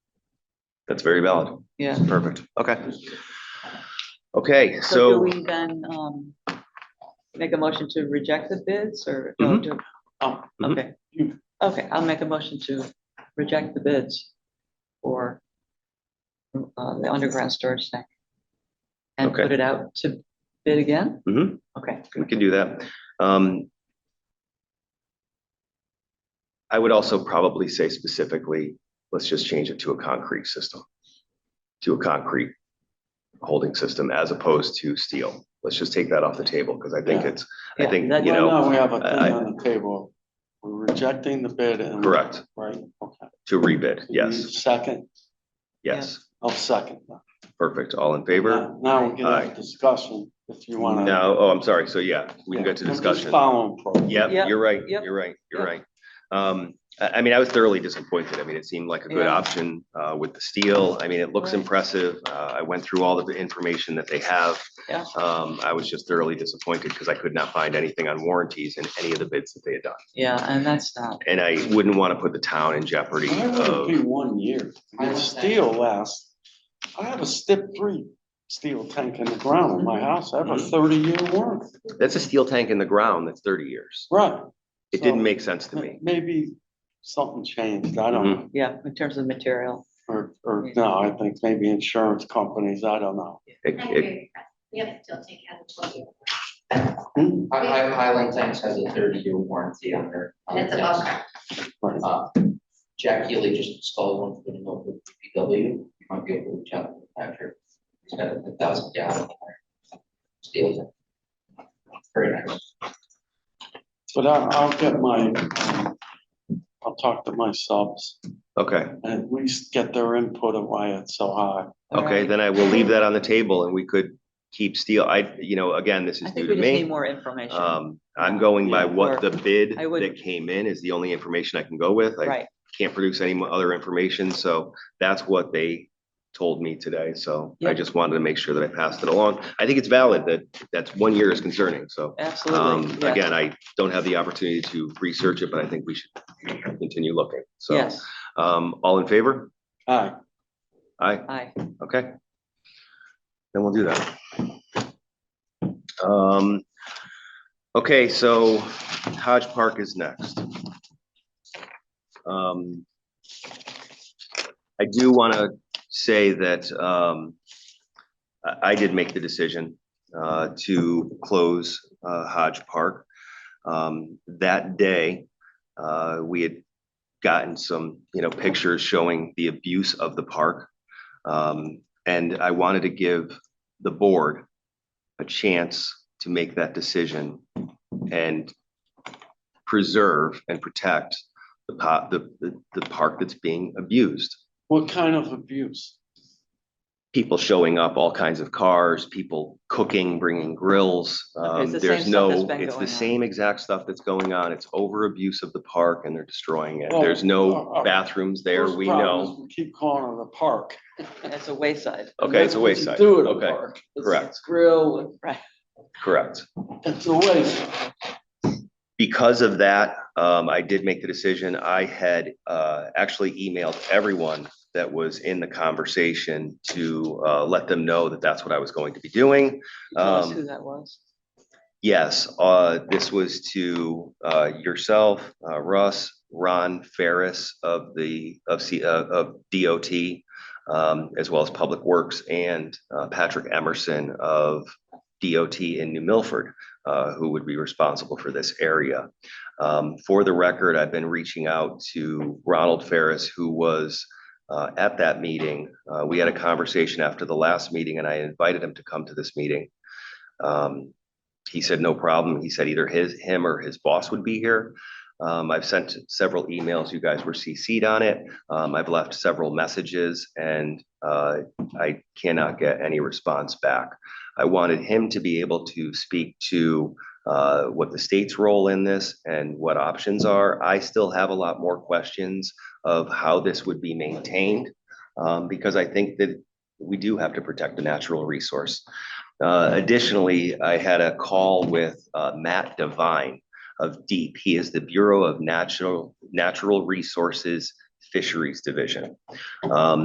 That's very valid. yeah. Perfect. Okay. Okay, So do so we then, um, make a motion to reject the bids or? no, Mhm. do- Oh, Mhm. okay. Okay, I'll make a motion to reject the bids for uh, the underground storage tank. And Okay. put it out to bid again? Mhm. Okay, we can do that. Um, I would also probably say specifically, let's just change it to a concrete system. To a concrete holding system as opposed to steel. Let's just take that off the table because I think Yeah. it's, I Yeah, think, that- you Right know, now, we have a I- thing on the table. We're rejecting the bid and. correct, Right, okay. to rebid. You Yes, Second, yes. I'll second. that. Perfect. All in favor? Now now we can Aye. have discussion if you wanna. Now, oh, I'm sorry. So yeah, we can go to I'm just discussion. Following. pro- Yeah, Yep, you're right, yep, you're right, you're yep. right. Um, I, I mean, I was thoroughly disappointed. I mean, it seemed like a good Yeah. option, uh, with the steel. I mean, it looks Right. impressive. Uh, I went through all of the information that they have. Yeah. Um, I was just thoroughly disappointed because I could not find anything on warranties in any of the bids that they had done. yeah, and that's not, And I wouldn't want to put the town in jeopardy Why would it of, be one year? If steel lasts, I have a step three steel tank in the ground in my house. I have a Mhm. thirty year warranty. that's a steel tank in the ground that's thirty years. Right. It didn't So, make sense to me. Mm-hmm. Maybe something changed. I don't know. yeah, in terms of material. Or, or no, I think maybe insurance companies, I don't know. It- I it- agree. We have to still take out the twelve year. Hmm? Hi- Hi- Highland Tanks has a thirty-year warranty on their. on And it's their above tanks. ground. Right. Uh, Jack Healy just installed one for the Millwood PW, you might be able to reach out to the factory. He's got a thousand gallon. Steel. tank. Very nice. But I, I'll get my, um, I'll talk to my subs Okay, and at least get their input of why it's so high. All okay, right. then I will leave that on the table and we could keep steel. I, you know, again, this I is new think to we me. just need more information, Um, I'm going by Yeah, what or- the bid I would- that came in is the only information I can go with. I right? can't produce any mo- other information, so that's what they told me today, so I Yep. just wanted to make sure that I passed it along. I think it's valid that, that's one year is concerning, so. Um, Absolutely, yeah. again, I don't have the opportunity to research it, but I think we should continue looking, so. Yes, Um, all in favor? Aye, Aye, aye, okay. Then we'll do that. Um, okay, so Hodge Park is next. Um, I do want to say that, um, I, I did make the decision, uh, to close, uh, Hodge Park. Um, that day, uh, we had gotten some, you know, pictures showing the abuse of the park. Um, and I wanted to give the board a chance to make that decision and preserve and protect the po the, the, the park that's being abused. what kind of abuse? People showing up, all kinds of cars, people cooking, bringing grills. Okay, it's Um, the there's same stuff that's no, been it's the going on. same exact stuff that's going on. It's over abuse of the park and they're destroying it. Oh, There's oh, no oh. bathrooms there, First we problem is know. We keep calling it a park. it's a wayside, And Okay, it's that's a what you wayside. Do it a Okay, park. It's- correct. It's grill, and- Correct. it's a wayside. because of that, um, I did make the decision. I had, uh, actually emailed everyone that was in the conversation to, uh, let them know that that's what I was going to be doing. tell us Um, who that was. Yes, uh, this was to, uh, yourself, uh, Russ, Ron Ferris of the, of C, uh, of DOT, um, as well as Public Works and, uh, Patrick Emerson of DOT in New Milford, uh, who would be responsible for this area. Um, for the record, I've been reaching out to Ronald Ferris, who was, uh, at that meeting. Uh, we had a conversation after the last meeting and I invited him to come to this meeting. Um, he said, no problem. He said either his, him or his boss would be here. Um, I've sent several emails. You guys were CC'd on it. Um, I've left several messages and, uh, I cannot get any response back. I wanted him to be able to speak to, uh, what the state's role in this and what options are. I still have a lot more questions of how this would be maintained. Um, because I think that we do have to protect the natural resource. Uh, Additionally, I had a call with uh, Matt Devine of DEEP. He is the Bureau of Natural, Natural Resources Fisheries Division. Um,